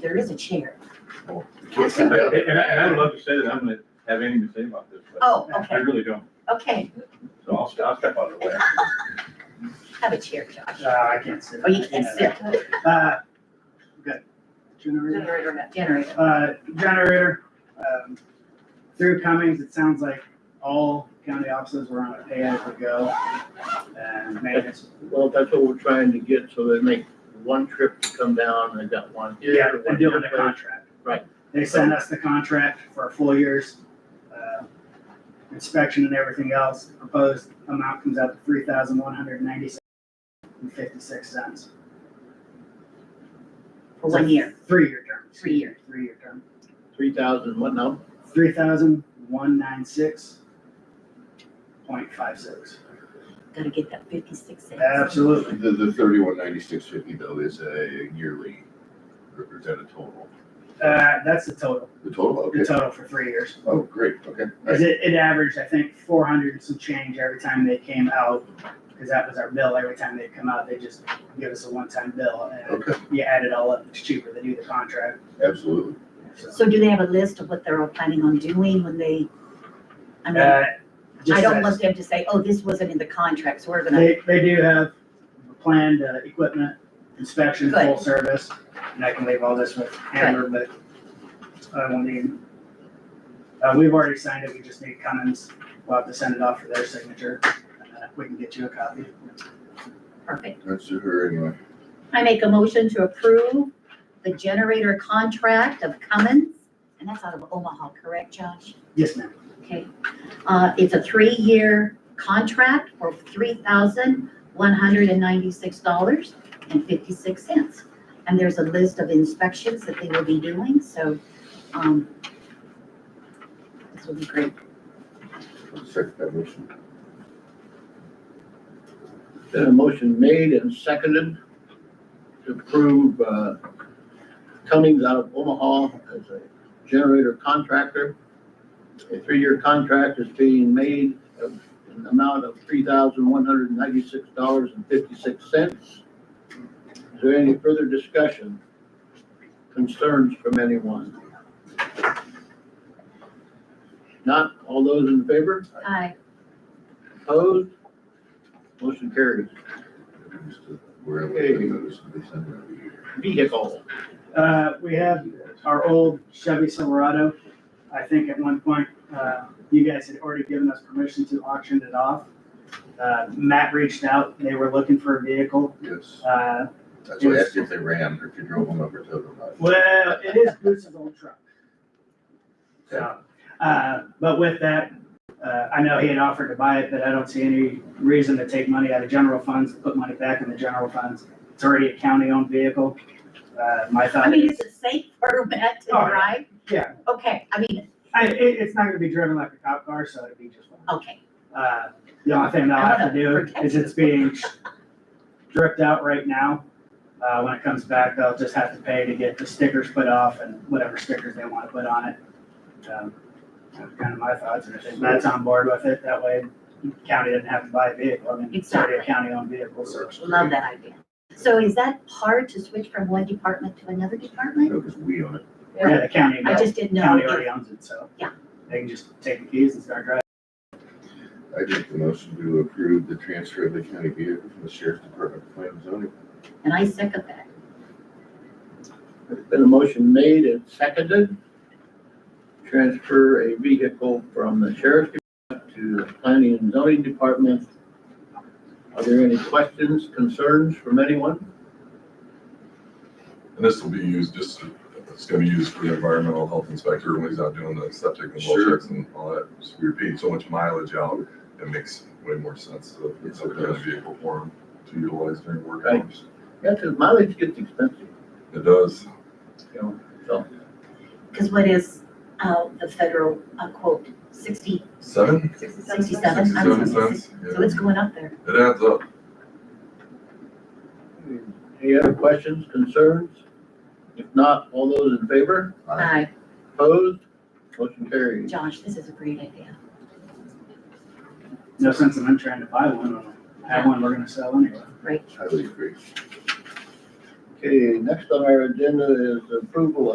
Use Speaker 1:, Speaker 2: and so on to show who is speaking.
Speaker 1: there is a chair.
Speaker 2: Can't say
Speaker 3: And
Speaker 2: that.
Speaker 3: and I, and I would love to say that I'm gonna have anything to say about this, but
Speaker 1: Oh,
Speaker 3: I
Speaker 1: okay,
Speaker 3: really don't,
Speaker 1: okay,
Speaker 3: so I'll, I'll step out of the way.
Speaker 1: have a chair, Josh.
Speaker 4: Uh, I can't sit.
Speaker 1: Oh, you can't sit.
Speaker 4: Uh, Good. Generator?
Speaker 1: Generator, not generator.
Speaker 4: Uh, generator, um, through Cummings, it sounds like all county offices were on a pay-as-you-go. And maintenance,
Speaker 5: Well, that's what we're trying to get, so they make one trip to come down, and they got one here.
Speaker 4: yeah,
Speaker 5: one
Speaker 4: they deal with the
Speaker 5: there.
Speaker 4: contract.
Speaker 5: Right.
Speaker 4: They send us the contract for a full year's, uh, inspection and everything else. Proposed amount comes out to three thousand one hundred ninety-six and fifty-six cents.
Speaker 1: For one year,
Speaker 4: Three-year term.
Speaker 1: three years.
Speaker 4: Three-year term.
Speaker 5: Three thousand, what now?
Speaker 4: Three thousand one nine six point five six.
Speaker 1: Gotta get that fifty-six cents.
Speaker 4: Absolutely.
Speaker 2: The, the thirty-one ninety-six fifty though is a yearly, or is that a total?
Speaker 4: Uh, that's the total,
Speaker 2: The total,
Speaker 4: the
Speaker 2: okay.
Speaker 4: total for three years.
Speaker 2: Oh, great, okay.
Speaker 4: Cause it, it averaged, I think, four hundred and some change every time they came out. Cause that was our bill. Every time they come out, they just give us a one-time bill and
Speaker 2: Okay,
Speaker 4: you add it all up. It's cheaper than do the contract.
Speaker 2: absolutely.
Speaker 4: So,
Speaker 1: So do they have a list of what they're all planning on doing when they, I mean,
Speaker 4: uh, just
Speaker 1: I don't
Speaker 4: as-
Speaker 1: want them to say, oh, this wasn't in the contract, so we're gonna,
Speaker 4: They, they do have planned uh, equipment inspection, full service, and I can leave all this with Amber, but I will need. Uh, we've already signed it, we just need Cummins, we'll have to send it off for their signature, and then we can get you a copy.
Speaker 1: perfect.
Speaker 2: That's to her anyway.
Speaker 1: I make a motion to approve the generator contract of Cummins, and that's out of Omaha, correct, Josh?
Speaker 4: Yes, ma'am.
Speaker 1: Okay. Uh, it's a three-year contract for three thousand one hundred and ninety-six dollars and fifty-six cents. And there's a list of inspections that they will be doing, so, um, this will be great.
Speaker 2: I'll Second that motion.
Speaker 5: Then a motion made and seconded to approve, uh, Cummings out of Omaha as a generator contractor. A three-year contract is being made of an amount of three thousand one hundred and ninety-six dollars and fifty-six cents. Is there any further discussion, concerns from anyone? Not all those in favor?
Speaker 1: Aye.
Speaker 5: Opposed? Motion carries.
Speaker 2: uh, Where I live, I notice they send it every year.
Speaker 5: Vehicle.
Speaker 4: Uh, we have our old Chevy Silverado. I think at one point, uh, you guys had already given us permission to auction it off. Uh, Matt reached out, they were looking for a vehicle,
Speaker 2: Yes,
Speaker 4: uh,
Speaker 2: that's why I asked you if they ran or if you drove them over to them.
Speaker 4: Well, it is Bruce's old truck. So, uh, but with that, uh, I know he had offered to buy it, but I don't see any reason to take money out of general funds, put money back in the general funds. It's already a county-owned vehicle. Uh, my
Speaker 1: I
Speaker 4: thought,
Speaker 1: mean, is it safe for Matt to
Speaker 4: Oh, yeah.
Speaker 1: drive?
Speaker 4: Yeah.
Speaker 1: Okay, I mean,
Speaker 4: I, it, it's not gonna be driven like a cop car, so it'd be just fine.
Speaker 1: okay,
Speaker 4: Uh, the only thing that I'll have to do is it's being dripped out right now. Uh, when it comes back, they'll just have to pay to get the stickers put off and whatever stickers they wanna put on it. Um, That's kind of my thoughts, and if Matt's on board with it, that way county doesn't have to buy a vehicle, I mean, it's already a county-owned vehicle, so.
Speaker 1: love that idea. So is that hard to switch from one department to another department?
Speaker 2: No, because we own it.
Speaker 4: Yeah, the county,
Speaker 1: I just didn't know.
Speaker 4: county already owns it, so.
Speaker 1: Yeah.
Speaker 4: They can just take the keys and start driving.
Speaker 2: I make the motion to approve the transfer of the county vehicle from the sheriff's department to planning and zoning.
Speaker 1: And I second that.
Speaker 5: There's been a motion made and seconded. Transfer a vehicle from the sheriff's department to the planning and zoning department. Are there any questions, concerns from anyone?
Speaker 6: And this will be used just, it's gonna be used for the environmental health inspector when he's out doing the septic and well
Speaker 2: Sure.
Speaker 6: checks and all that. So We're paying so much mileage out, it makes way more sense to put something in a vehicle for him to utilize during work
Speaker 5: Right.
Speaker 6: hours.
Speaker 5: Yeah, 'cause mileage gets expensive,
Speaker 6: It does.
Speaker 5: you know, so.
Speaker 1: Because what is, uh, the federal uh, quote, sixty,
Speaker 6: Seven,
Speaker 1: sixty-seven? I'm
Speaker 6: sixty-seven
Speaker 1: sorry,
Speaker 6: cents?
Speaker 1: So it's going up there.
Speaker 6: Yeah. It adds up.
Speaker 5: Any other questions, concerns? If not, all those in favor?
Speaker 1: Aye,
Speaker 5: Opposed? Motion carries.
Speaker 1: Josh, this is a great idea.
Speaker 4: No sense in them trying to buy one, when I have one we're gonna sell anyway.
Speaker 2: Highly agree.
Speaker 5: Okay, next on our agenda is approval